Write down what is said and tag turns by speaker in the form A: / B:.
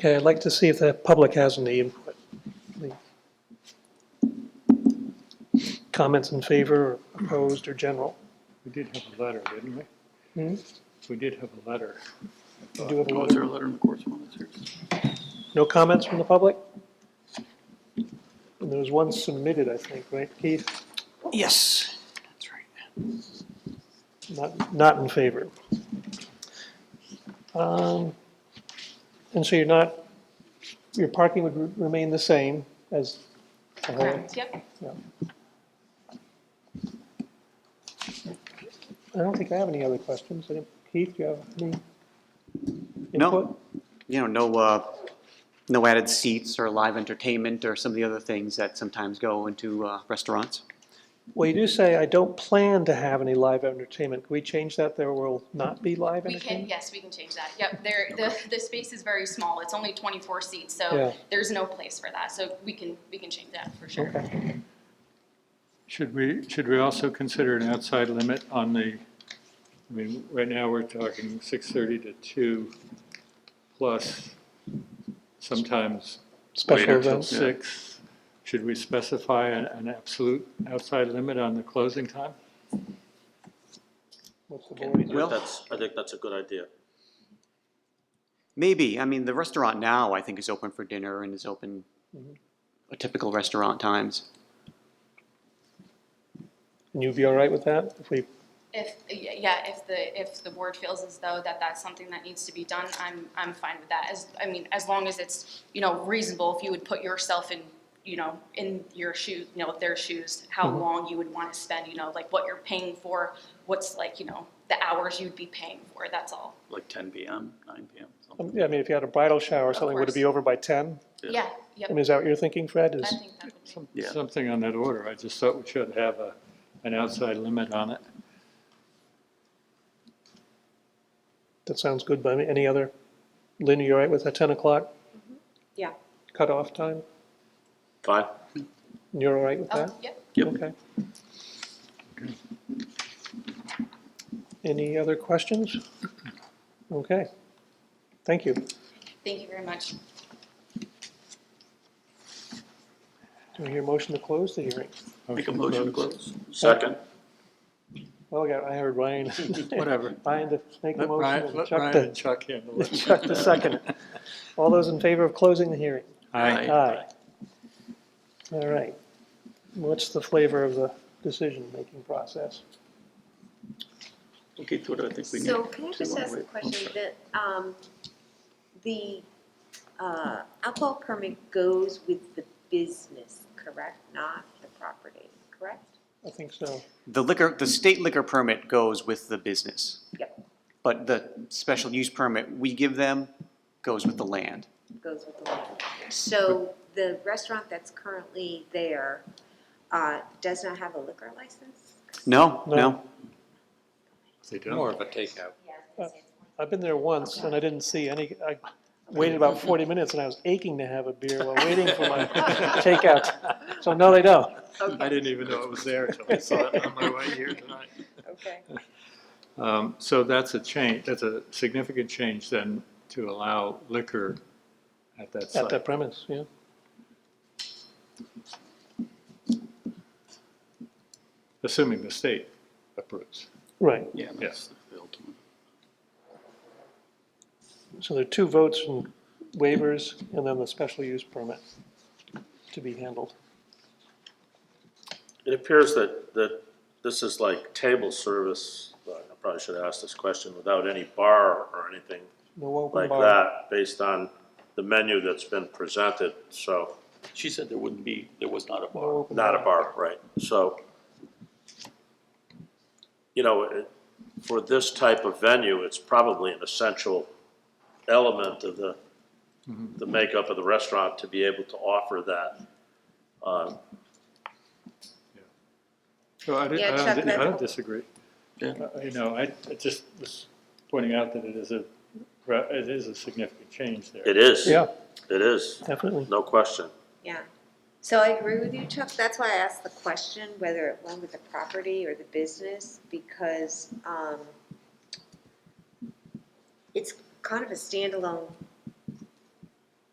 A: Okay, I'd like to see if the public has any input. please. Comments in favor, or opposed, or general?
B: We did have a letter, didn't we?
A: Hmm?
B: We did have a letter.
A: Do you have a
C: Oh, is
A: letter?
C: there a letter in the correspondence here?
A: No comments from the public? And there was one submitted, I think, right, Keith?
C: Yes, that's right.
A: Not, not in favor. Um, And so you're not, your parking would re- remain the same as the whole?
D: Correct, yep.
A: I don't think I have any other questions. Any- Keith, do you have any?
E: No.
A: input?
E: you know, no, uh, no added seats or live entertainment or some of the other things that sometimes go into, uh, restaurants.
A: Well, you do say, I don't plan to have any live entertainment. Can we change that? There will not be live
D: We can,
A: entertainment?
D: yes, we can change that. Yep, there, the, the space is very small. It's only twenty-four seats,
A: Yeah.
D: so there's no place for that. So we can, we can change that for sure.
A: Okay.
B: Should we, should we also consider an outside limit on the, I mean, right now we're talking 6:30 to 2 plus sometimes
A: Special
B: later till
A: events.
B: 6. Should we specify an, an absolute outside limit on the closing time?
A: What's the
C: Okay,
A: board?
E: Well-
F: That's, I think that's a good idea.
E: Maybe, I mean, the restaurant now, I think, is open for dinner and is open a typical restaurant times.
A: And you'd be all right with that? If we,
D: If, yeah, if the, if the board feels as though that that's something that needs to be done, I'm, I'm fine with that. As, I mean, as long as it's, you know, reasonable, if you would put yourself in, you know, in your shoes, you know, their shoes, how
A: Mm-hmm.
D: long you would want to spend, you know, like what you're paying for, what's like, you know, the hours you'd be paying for, that's all.
C: Like ten PM, nine PM,
A: I
C: something.
A: mean, if you had a bridal shower or
D: Of
A: something, would it
D: course.
A: be over by 10?
C: Yeah.
D: Yeah,
A: I
D: yep,
A: mean, is that what you're thinking, Fred?
D: I
A: Is,
D: think that would be.
B: Some-
C: Yeah.
B: Something on that order. I just thought we should have a, an outside limit on it.
A: that sounds good by me. Any other? Lynn, are you all right with a 10 o'clock
G: Yeah.
A: cutoff time?
F: Fine.
A: You're all right with that?
D: Oh, yep.
C: Yep.
A: Okay. Any other questions? Okay, thank you.
D: Thank you very much.
A: Do we hear a motion to close the hearing?
C: Make a motion to close.
F: Second?
A: Well, yeah, I heard Ryan,
B: Whatever.
A: Ryan to make a
B: Let
A: motion,
B: Ryan,
A: and
B: let
A: Chuck
B: Ryan and
A: to,
B: Chuck handle it.
A: Chuck to second it. All those in favor of closing the hearing?
B: Aye.
A: Aye. All right. What's the flavor of the decision-making process?
C: Okay, Tora, I think we need.
G: So can I
C: to
G: just
C: wanna
G: ask a
C: wait.
G: question that, um, the, uh, alcohol permit goes with the business, correct? Not the property, correct?
A: I think so.
E: The liquor, the state liquor permit goes with the business.
G: Yep.
E: But the special use permit we give them goes with the land.
G: Goes with the land. So the restaurant that's currently there, uh, does not have a liquor license?
E: No,
A: No.
E: no,
B: They don't.
H: More of a takeout.
A: I've been there once and I didn't see any, I waited about forty minutes and I was aching to have a beer while waiting for my takeout. So no, they don't.
B: I didn't even know it was there until I saw it on my way here tonight.
C: Oh.
G: Okay.
B: Um, So that's a change, that's a significant change then to allow liquor at that
A: At that
B: site.
A: premise, yeah.
B: Assuming the state approves.
A: Right.
C: Yeah, that's the field.
A: So there are two votes and waivers and then the special use permit to be handled.
F: It appears that, that this is like table service, but I probably should ask this question, without any bar or anything
A: No open
F: like
A: bar.
F: that, based on the menu that's been presented, so,
C: She said there wouldn't be, there was not a
A: No
C: bar.
A: open
F: not a bar, right, so. You know, it- for this type of venue, it's probably an essential element of the,
A: Mm-hmm.
F: the makeup of the restaurant to be able to offer that. Uh,
B: So I did-
G: Yeah,
B: I
G: Chuck,
B: don't, I
G: that-
B: don't disagree.
C: Yeah.
B: Uh, You know, I I just was pointing out that it is a, it is a significant change there.
F: It is.
A: Yeah,
F: It is,
A: definitely.
F: no question.
G: Yeah. So I agree with you, Chuck. That's why I asked the question, whether it went with the property or the business, because, um, it's kind of a standalone